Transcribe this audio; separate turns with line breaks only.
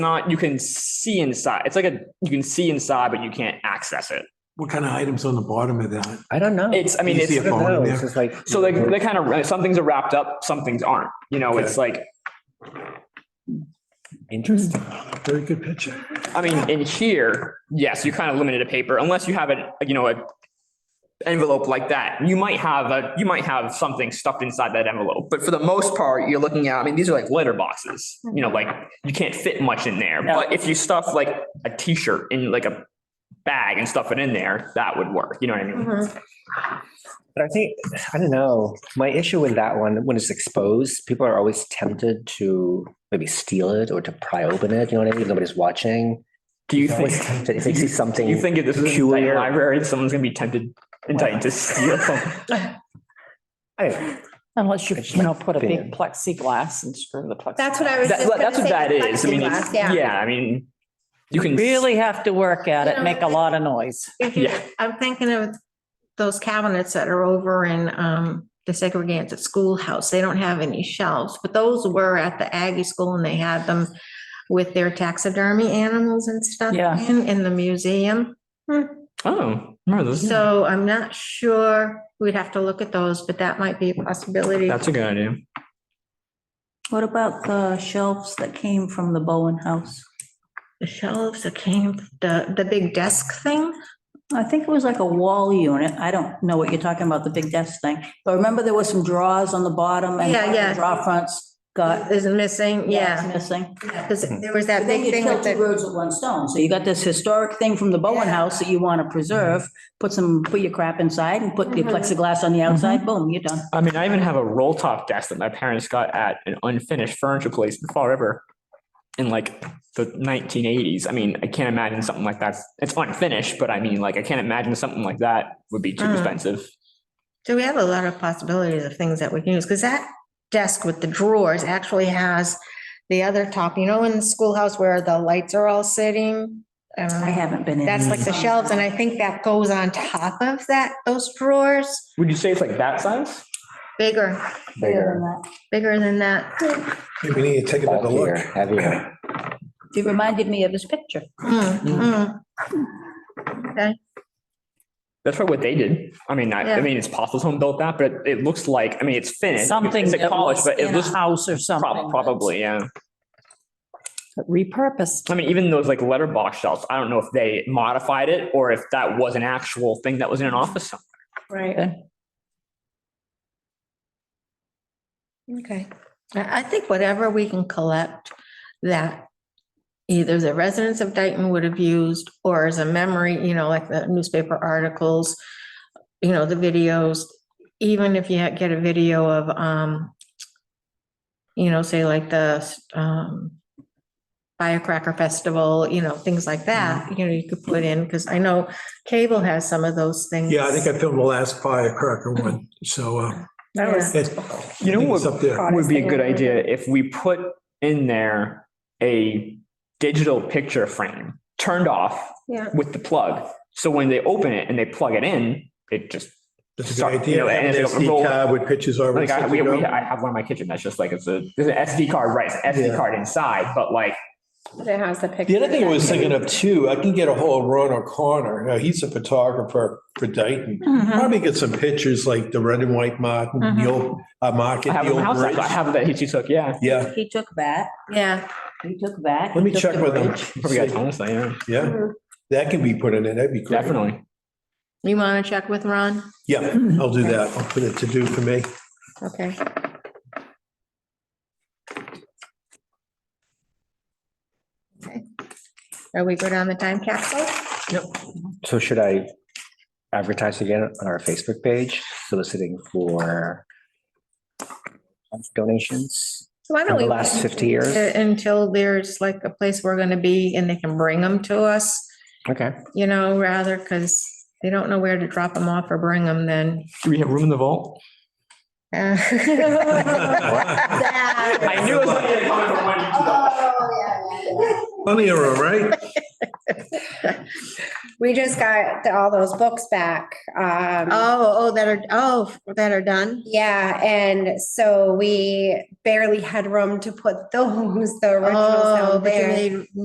not, you can see inside. It's like a, you can see inside, but you can't access it.
What kind of items on the bottom of that?
I don't know.
It's, I mean,
You
it's,
see a
I don't
phone in
know.
there.
It's just like.
so like, they kind of, some things are wrapped up, some things aren't, you know, it's like,
Interesting.
Very good picture.
I mean, in here, yes, you're kind of limited to paper unless you have a, you know, a envelope like that. You might have a, you might have something stuffed inside that envelope, but for the most part, you're looking at, I mean, these are like letter boxes, you know, like you can't fit much in there.
Yeah.
But if you stuff like a t-shirt in like a bag and stuff it in there, that would work. You know what I mean?
But I think, I don't know, my issue with that one, when it's exposed, people are always tempted to maybe steal it or to pry open it, you know what I mean? Nobody's watching.
Do you
It's always
think,
tempted If they see
do
something.
you think if this is a
peculiar-
library, someone's gonna be tempted, entitled to steal something?
I don't know.
Unless you,
It's
you
like
know, put a
thin.
big plexiglass and screw the plexiglass.
That's what I was
That-
just gonna
That's what
say,
that is. I mean, it's-
plexiglass, yeah.
yeah, I mean, you can.
Really have to work at
You
it,
know,
make a lot of noise.
If you-
Yeah.
I'm thinking of those cabinets that are over in um the segregated schoolhouse. They don't have any shelves, but those were at the Aggie School and they had them with their taxidermy animals and stuff
Yeah.
in, in the museum.
Oh, no, those,
So I'm not sure, we'd have to look at those, but that might be a possibility.
that's a good idea.
What about the shelves that came from the Bowen House?
The shelves that came, the, the big desk thing.
I think it was like a wall unit. I don't know what you're talking about, the big desk thing. But remember there was some drawers on the bottom and
Yeah, yeah.
draw fronts
Uh,
got
Is missing,
it's
yeah.
missing.
Because there was that
But then
big
you
thing
kill
with
two
the,
birds with one stone. So you got this historic thing from the Bowen
Yeah.
House that you want to preserve. Put some, put your crap inside and put your
Mhm.
plexiglass on the outside.
Mm-hmm.
Boom, you're done.
I mean, I even have a roll top desk that my parents got at an unfinished furniture place in Fall River in like the 1980s. I mean, I can't imagine something like that. It's unfinished, but I mean, like, I can't imagine something like that would be too
Mm.
expensive.
so we have a lot of possibilities of things that we can use, because that desk with the drawers actually has the other top, you know, in the schoolhouse where the lights are all sitting? Um,
I Mm-hmm. haven't been in.
That's like the shelves, and I think that goes on top of that, those drawers,
Would you say it's like that size?
bigger,
Bigger than
Bigger,
that.
bigger than that.
Maybe we need to take another
bulkier,
look.
heavier.
You reminded me of this picture.
Mm, mm.
That's probably what they did. I mean, I, I
Yeah.
mean, it's possible someone built that, but it, it looks like, I mean, it's finished.
Something
It's a
that
college,
was
but it
in a
looks
house or something.
prob- probably, yeah.
But Repurposed.
I mean, even those like letterbox shelves, I don't know if they modified it or if that was an actual thing that was in an office. somewhere.
Right.
Okay, I, I think whatever we can collect that either the residents of Dayton would have used or as a memory, you know, like the newspaper articles, you know, the videos, even if you had- get a video of, um, you know, say like the, um, firecracker festival, you know, things like that,
Mm-hmm.
you know, you could put in, because I know cable has some of those things.
Yeah, I think I filmed the last firecracker one, so, uh,
That was-
it's,
You know
it's
what
up there.
would be a good idea if we put in there a digital picture frame turned off
Yeah.
with the plug. So when they open it and they plug it in, it just,
That's a
Sorry,
good
you know,
idea.
and
Have an
it's a roll-
SD card with pictures already.
like I,
set
we,
it
we,
up.
I have one in my kitchen that's just like, it's a, there's an SD card, right? It's an SD
Yeah.
card inside, but like,
That has the picture.
The other thing I was thinking of too, I can get a hold of Ron O'Connor. Now, he's a photographer for Dayton.
Mhm.
Probably get some pictures like the red and white Martin, the old, uh, market,
I have
the
them in my
old
house. I
bridge.
have that he took, yeah.
Yeah,
He took that.
Yeah,
He took that.
let me
he took
check
the
with him.
bridge.
Probably got tons, yeah,
Yeah, that can be put in there. That'd be great.
definitely.
you want to check with Ron?
Yeah, I'll do that. I'll put it to do for me.
Okay. Okay. Are we good on the time capsule?
So should I advertise again on our Facebook page soliciting for donations
Why
for
don't
the
we
last 50 years?
Uh, Until there's like a place we're gonna be and they can bring them to us,
Okay.
you know, rather, because they don't know where to drop them off or bring them then.
Do we have room in the vault?
Uh,
I knew it was going to come from one to the
Funny, all right?
We just got the- all those books back. Um,
Oh, oh, that are, oh, that are done?
yeah, and so we barely had room to put those, the originals
Oh,
down
but you
there.
made